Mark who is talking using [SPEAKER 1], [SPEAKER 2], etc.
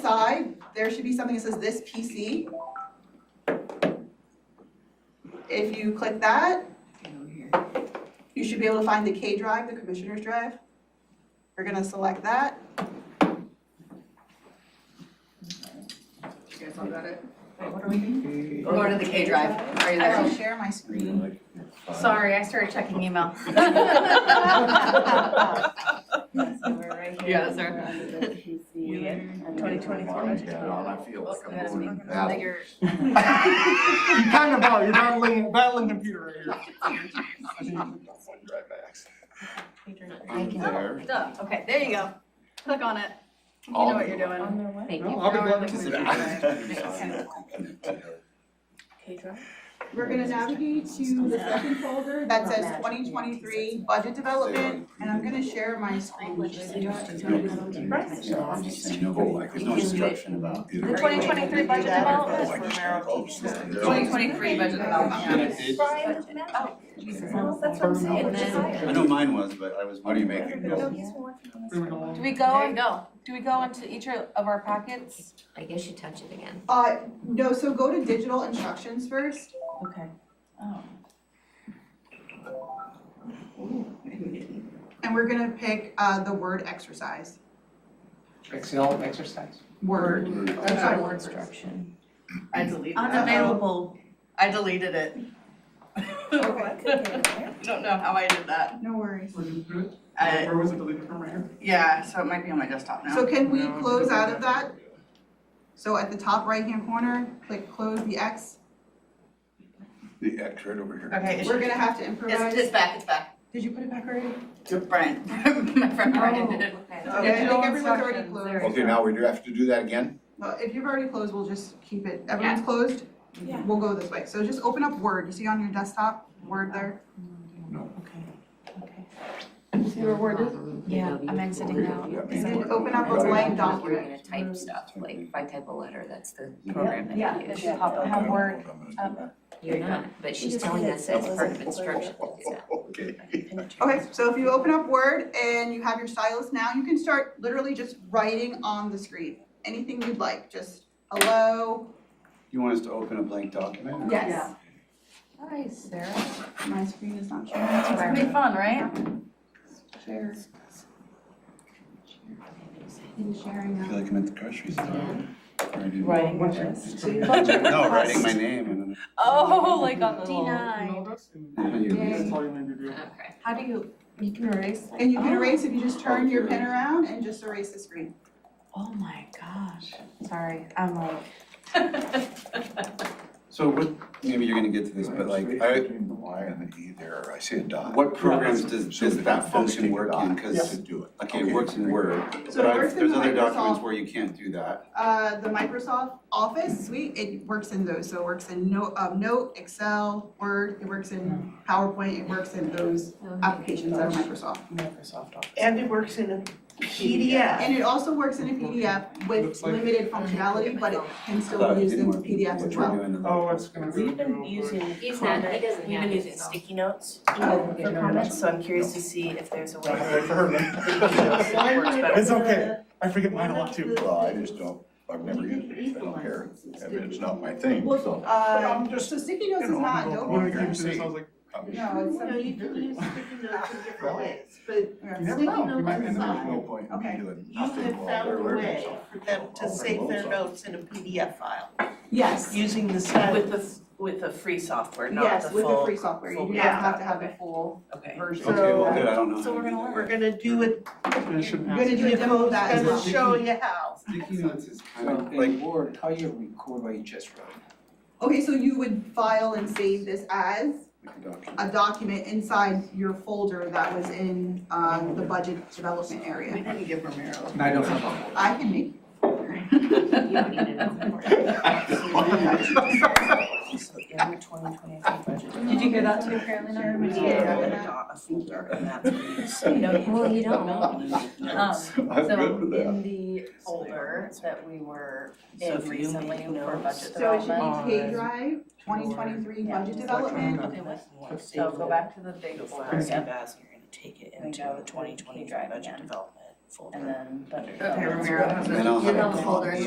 [SPEAKER 1] side, there should be something that says this PC. If you click that, you should be able to find the K drive, the commissioner's drive. You're gonna select that. You guys all got it?
[SPEAKER 2] what are we doing?
[SPEAKER 3] Go to the K drive. Are you
[SPEAKER 1] I will
[SPEAKER 3] there?
[SPEAKER 1] share my screen.
[SPEAKER 4] Sorry.
[SPEAKER 2] Sorry, I started checking email.
[SPEAKER 1] Yes,
[SPEAKER 5] So we're right here.
[SPEAKER 3] Yeah, sir.
[SPEAKER 5] We're under the PC. And then
[SPEAKER 2] 2024.
[SPEAKER 4] I feel like I'm going to battle.
[SPEAKER 6] You kind of are, you're battling, battling computer right here.
[SPEAKER 4] I'm there.
[SPEAKER 3] Duh. Okay, there you go. Click on it. You know what you're doing.
[SPEAKER 5] On their way.
[SPEAKER 2] Thank
[SPEAKER 6] No,
[SPEAKER 2] you.
[SPEAKER 6] I'll be glad to
[SPEAKER 4] Is it-
[SPEAKER 6] participate.
[SPEAKER 5] Okay, drive.
[SPEAKER 1] We're gonna navigate to the second folder that says twenty twenty-three budget development, and I'm gonna share my screen with you.
[SPEAKER 4] There's no instruction about.
[SPEAKER 3] The 2023 budget development.
[SPEAKER 2] 2023 budget
[SPEAKER 4] And
[SPEAKER 2] development.
[SPEAKER 4] it- it-
[SPEAKER 5] That's what I'm saying.
[SPEAKER 3] And then-
[SPEAKER 4] I know mine was, but I was. What do you make it
[SPEAKER 5] No, he's been working on this.
[SPEAKER 6] Moving along.
[SPEAKER 2] Do we
[SPEAKER 3] There
[SPEAKER 2] go,
[SPEAKER 3] you go.
[SPEAKER 2] do we go into each of our packets?
[SPEAKER 7] I guess you touch it again.
[SPEAKER 1] Uh, no, so go to digital instructions first. Oh.
[SPEAKER 2] Okay.
[SPEAKER 1] And we're gonna pick uh the word exercise.
[SPEAKER 6] Excel exercise.
[SPEAKER 1] Word.
[SPEAKER 5] That's
[SPEAKER 1] Sorry,
[SPEAKER 5] our
[SPEAKER 1] word first.
[SPEAKER 5] instruction.
[SPEAKER 3] I deleted
[SPEAKER 2] Unavailable.
[SPEAKER 3] I deleted it.
[SPEAKER 5] Oh, I could get it there.
[SPEAKER 3] Don't know how I did that.
[SPEAKER 1] No worries.
[SPEAKER 3] I,
[SPEAKER 6] Where was it deleted from right here?
[SPEAKER 3] Uh, yeah, so it might be on my desktop now.
[SPEAKER 1] So can we close out of that? So at the top right-hand corner, click close the X.
[SPEAKER 4] The X right over here.
[SPEAKER 3] Okay, it's,
[SPEAKER 1] We're gonna have to
[SPEAKER 3] it's,
[SPEAKER 1] improvise.
[SPEAKER 3] it's back, it's back.
[SPEAKER 1] Did you put it back already?
[SPEAKER 3] Brian, my friend
[SPEAKER 5] Oh,
[SPEAKER 3] Brian did it.
[SPEAKER 1] Okay, I
[SPEAKER 5] Digital
[SPEAKER 1] think everyone's already
[SPEAKER 5] instructions,
[SPEAKER 1] closed.
[SPEAKER 5] there
[SPEAKER 4] Okay, now we do have to do that again?
[SPEAKER 1] Well, if you've already closed, we'll just keep it, everyone's closed?
[SPEAKER 5] Yeah.
[SPEAKER 1] We'll go this way, so just open up Word, you see on your desktop, Word there?
[SPEAKER 5] See where word is?
[SPEAKER 7] Yeah,
[SPEAKER 2] I'm exiting out.
[SPEAKER 1] And then open up a blank
[SPEAKER 7] You're
[SPEAKER 1] document.
[SPEAKER 7] gonna type stuff, like if I type a letter, that's the
[SPEAKER 4] Yeah.
[SPEAKER 7] program that
[SPEAKER 5] Yeah,
[SPEAKER 7] you
[SPEAKER 5] it's
[SPEAKER 7] use.
[SPEAKER 5] just pop up.
[SPEAKER 2] Have word
[SPEAKER 7] You're not, but she's telling us that's part of instruction, it's not.
[SPEAKER 4] Okay.
[SPEAKER 1] Um, Okay, so if you open up Word and you have your stylus now, you can start literally just writing on the screen, anything you'd like, just hello,
[SPEAKER 4] You want us to open a blank document?
[SPEAKER 1] yes.
[SPEAKER 2] Nice, Sarah.
[SPEAKER 1] My screen is not
[SPEAKER 2] It's gonna
[SPEAKER 1] sharing.
[SPEAKER 2] be fun, right?
[SPEAKER 1] Share. In sharing
[SPEAKER 4] I feel
[SPEAKER 1] now.
[SPEAKER 4] like I'm at the grocery store.
[SPEAKER 5] Writing
[SPEAKER 6] What's your-
[SPEAKER 5] this.
[SPEAKER 4] No, writing my name and.
[SPEAKER 2] Oh, like on the
[SPEAKER 6] You
[SPEAKER 2] little.
[SPEAKER 6] know, that's in-
[SPEAKER 4] Yeah.
[SPEAKER 6] That's all you need to do.
[SPEAKER 7] Okay.
[SPEAKER 2] How do you, you can erase?
[SPEAKER 1] And you can erase if you just turn your pen around and just erase the screen.
[SPEAKER 2] Oh my gosh, sorry, I'm like.
[SPEAKER 4] So what, maybe you're gonna get to this, but like, I,
[SPEAKER 8] the Y and the E there, I see a dot.
[SPEAKER 4] What programs does, does that function work in?
[SPEAKER 8] Yes.
[SPEAKER 4] Cause, okay, it works in Word,
[SPEAKER 1] So it
[SPEAKER 4] but I,
[SPEAKER 1] works in
[SPEAKER 4] there's
[SPEAKER 1] the
[SPEAKER 4] other documents
[SPEAKER 1] Microsoft,
[SPEAKER 4] where you can't do that.
[SPEAKER 1] uh, the Microsoft Office suite, it works in those, so it works in Note, um, Note, Excel, Word, it works in PowerPoint, it works in those applications that are Microsoft.
[SPEAKER 6] Microsoft Office.
[SPEAKER 9] And it works in a PDF.
[SPEAKER 1] And it also works in a PDF with
[SPEAKER 6] Looks like-
[SPEAKER 1] limited functionality, but it can still
[SPEAKER 4] But
[SPEAKER 1] be
[SPEAKER 4] it
[SPEAKER 1] used in
[SPEAKER 4] didn't work in
[SPEAKER 1] PDFs as
[SPEAKER 4] what you're
[SPEAKER 1] well.
[SPEAKER 4] doing in the-
[SPEAKER 6] Oh, it's gonna be.
[SPEAKER 5] We've been using.
[SPEAKER 7] He's not, he
[SPEAKER 5] comment-
[SPEAKER 7] doesn't
[SPEAKER 5] We've
[SPEAKER 7] have
[SPEAKER 5] been
[SPEAKER 7] it.
[SPEAKER 5] using sticky notes for comments, so I'm curious to see if there's a way.
[SPEAKER 6] It's okay, I forget mine a lot too.
[SPEAKER 8] Well, I just don't, I've never used it, I don't care, I mean, it's not my thing, so.
[SPEAKER 1] Uh,
[SPEAKER 8] just,
[SPEAKER 1] so sticky notes is
[SPEAKER 8] you know,
[SPEAKER 1] not
[SPEAKER 8] I'm
[SPEAKER 6] When I
[SPEAKER 1] Adobe.
[SPEAKER 6] came to this, I was like,
[SPEAKER 8] I'm-
[SPEAKER 1] No, it's
[SPEAKER 9] No,
[SPEAKER 1] something.
[SPEAKER 9] you can use sticky notes in different ways, but
[SPEAKER 6] you
[SPEAKER 1] yeah.
[SPEAKER 6] never
[SPEAKER 9] Sticky
[SPEAKER 6] know, you
[SPEAKER 9] notes
[SPEAKER 6] might end
[SPEAKER 9] aside.
[SPEAKER 6] up.
[SPEAKER 8] No point in me doing
[SPEAKER 9] you have
[SPEAKER 8] nothing while
[SPEAKER 9] found a
[SPEAKER 8] they're
[SPEAKER 9] way
[SPEAKER 8] learning
[SPEAKER 9] for them to save their notes in a PDF file
[SPEAKER 1] Yes,
[SPEAKER 9] using the stylus.
[SPEAKER 5] With the, with the free software, not the
[SPEAKER 1] yes, with the
[SPEAKER 5] full,
[SPEAKER 1] free software, you do not
[SPEAKER 9] Yeah.
[SPEAKER 1] have to have the full
[SPEAKER 5] okay.
[SPEAKER 1] version.
[SPEAKER 4] Okay, well, good, I don't know.
[SPEAKER 2] So we're gonna
[SPEAKER 4] how to do
[SPEAKER 9] We're gonna do it,
[SPEAKER 6] It shouldn't
[SPEAKER 1] Good.
[SPEAKER 6] happen.
[SPEAKER 1] do a demo of that as
[SPEAKER 9] gonna
[SPEAKER 1] well.
[SPEAKER 9] show you how.
[SPEAKER 4] that. Sticky notes is kind
[SPEAKER 10] So
[SPEAKER 4] of
[SPEAKER 10] in
[SPEAKER 4] like,
[SPEAKER 10] Word, how you record what you just wrote?
[SPEAKER 1] Okay, so you would file and save this as
[SPEAKER 4] like a document.
[SPEAKER 1] a document inside your folder that was in uh, the budget development
[SPEAKER 3] We
[SPEAKER 1] area.
[SPEAKER 3] didn't give Romero.
[SPEAKER 10] And I don't have
[SPEAKER 1] I can make,
[SPEAKER 5] So in the twenty twenty-three budget.
[SPEAKER 2] Did you hear that too?
[SPEAKER 5] Apparently not.
[SPEAKER 1] We did.
[SPEAKER 5] Not a folder, and that's what you say.
[SPEAKER 7] Well, you don't.
[SPEAKER 2] Um, So
[SPEAKER 8] I'm good with that.
[SPEAKER 2] in the folder that we were
[SPEAKER 5] So
[SPEAKER 2] in
[SPEAKER 5] if you
[SPEAKER 2] recently
[SPEAKER 5] make
[SPEAKER 2] for
[SPEAKER 5] notes-
[SPEAKER 2] budget
[SPEAKER 1] so it should
[SPEAKER 2] development.
[SPEAKER 1] be K drive, twenty twenty-three budget development.
[SPEAKER 2] Okay, what? So go back to the big
[SPEAKER 5] You'll
[SPEAKER 2] folder
[SPEAKER 5] find some
[SPEAKER 2] again,
[SPEAKER 5] baz, and you're gonna take it
[SPEAKER 2] And
[SPEAKER 5] into
[SPEAKER 2] go
[SPEAKER 5] the
[SPEAKER 2] to
[SPEAKER 5] twenty
[SPEAKER 2] the key
[SPEAKER 5] twenty-three
[SPEAKER 2] drive
[SPEAKER 5] budget
[SPEAKER 2] again.
[SPEAKER 5] development folder.
[SPEAKER 2] and then budget
[SPEAKER 3] Okay,
[SPEAKER 2] development.
[SPEAKER 3] Romero has
[SPEAKER 4] And then I'll
[SPEAKER 3] a,
[SPEAKER 4] have
[SPEAKER 3] you
[SPEAKER 4] a
[SPEAKER 3] have a folder.
[SPEAKER 4] copy.